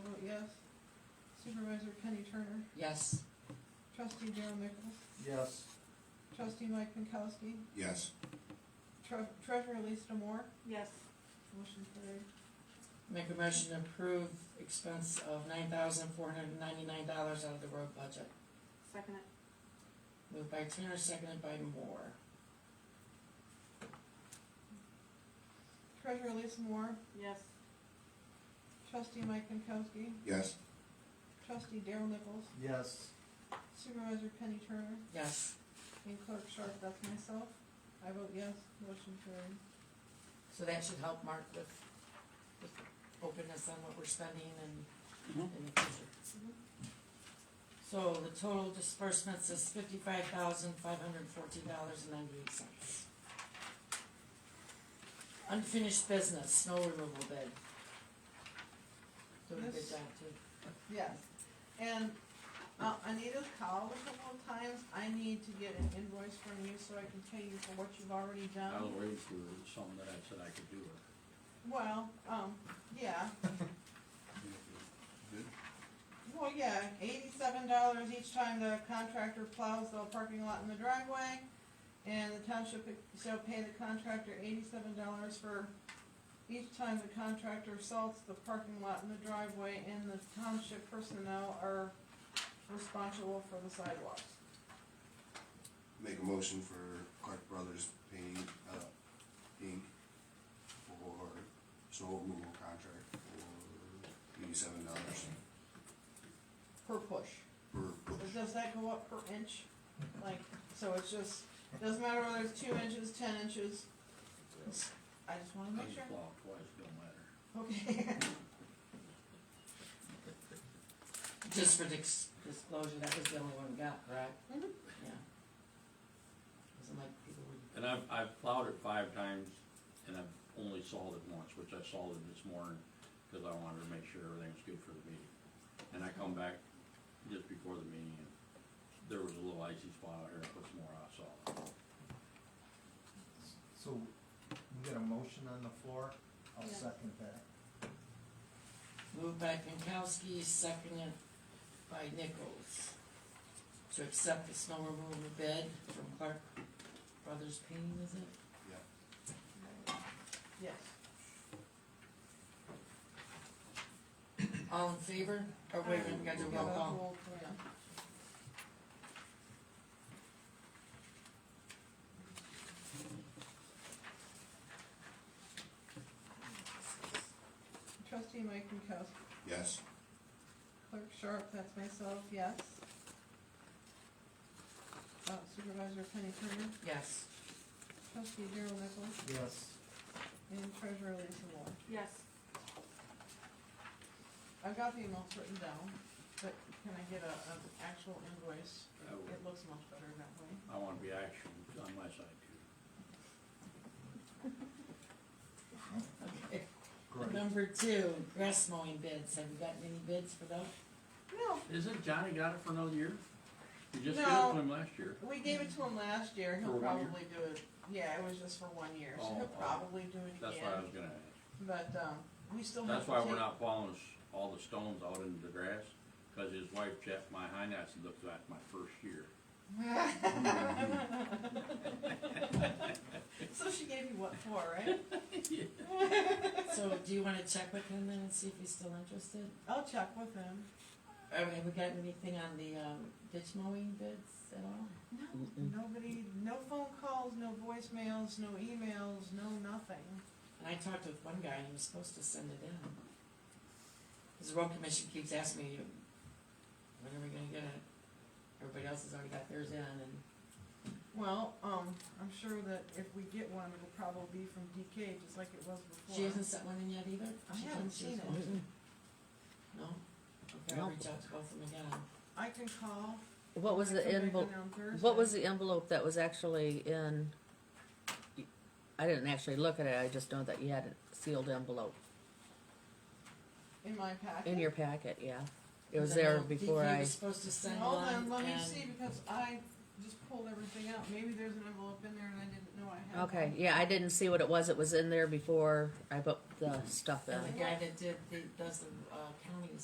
Supervisor Penny Turner, Yes. trustee Daryl Nichols, Yes. trustee Mike Pankowski, Yes. tre- treasurer Lisa Moore, Yes. motion carried. Make a motion to approve expense of nine thousand four hundred and ninety-nine dollars out of the road budget. Second it. Moved by Turner, seconded by Moore. Treasurer Lisa Moore, Yes. trustee Mike Pankowski, Yes. trustee Daryl Nichols, Yes. supervisor Penny Turner, Yes. and clerk Sharp, that's myself. I vote yes, motion carried. So that should help Mark with, with openness on what we're spending and in the future. Mhm. So the total disbursements is fifty-five thousand five hundred fourteen dollars and ninety-eight cents. Unfinished business, snow removal bid. Doing a good Yes. job too. Yes, and uh, Anita's called a couple of times, I need to get an invoice from you so I can pay you for what you've already done. I'll raise you something that I said I could do it. Well, um, yeah, well, yeah, eighty-seven dollars each time the contractor plows the parking lot in the driveway. And the township shall pay the contractor eighty-seven dollars for each time the contractor salts the parking lot in the driveway and the township personnel are responsible for the sidewalks. Make a motion for Clark Brothers Painting, uh, Inc. for snow removal contract for eighty-seven dollars Per push. per But bush. Does that go up per inch? Like, so it's just, doesn't matter whether it's two inches, ten inches, I just wanna I make just sure. plow twice, don't matter. Okay, Just for dis- disclosure, that was the only one we got, correct? Mhm. Yeah. Wasn't like people would, And I've, I've plowed it five times and I've only sawed it once, which I sawed it this morning because I wanted to make sure everything's good for the meeting. And I come back just before the meeting and there was a little icy spot out here, I put some more ice on it. So, we got a motion on the floor, I'll Yeah. second that. moved by Pinkowski, seconded by Nichols, to accept the snow removal bid from Clark Brothers Painting, is it? yes. All in favor? Or wait a minute, we gotta do a roll call. Yeah. Trustee Mike Pankowski, Yes. clerk Sharp, that's myself, yes. Uh, Supervisor Penny Turner, Yes. trustee Daryl Nichols, Yes. and treasurer Lisa Moore. Yes. I've got the amounts written down, but can I get a, an actual invoice? I would- It looks much better that way. I want to be action on my side too. Okay. Great. Number two, grass mowing bids. Have you gotten any bids for those? No, Isn't Johnny got it for another year? You just gave it No. to him last year. We gave it to him last year, For he'll one year? probably do it, yeah, it was just for one year, so Oh, he'll oh. probably do it That's why I again, was gonna ask. but, um, we still have That's to why we're take- not plowing s- all the stones out into the grass, cause his wife checked my hind ass and looked at my first year. So she gave you what for, right? So do you wanna check with him then and see if he's still interested? I'll check with him. Uh, Have we gotten anything on the, um, ditch mowing bids at all? No, nobody, no phone calls, no voicemails, no emails, no nothing. And I talked with one guy and he was supposed to send it in. Cause the road commission keeps asking me, when are we gonna get it? Everybody else has already got theirs in and Well, um, I'm sure that if we get one, it'll probably be from DK, just like it was before. she hasn't sent one in yet either? I She haven't thinks she seen was it. going to. No? Okay, I'll reach out to both of them again. I can call. What was the Come back envelope, in on what was Thursday. the envelope that was actually in? I didn't actually look at it, I just know that you had a sealed envelope In my packet? in your packet, yeah. It was Because I there know before DK I, was supposed to send Hold one on, let me and- see, because I just pulled everything out, maybe there's an envelope in there and I didn't know I had. okay, one. yeah, I didn't see what it was, it was in there before I put the stuff in. And the guy that did, the, does the, uh, counties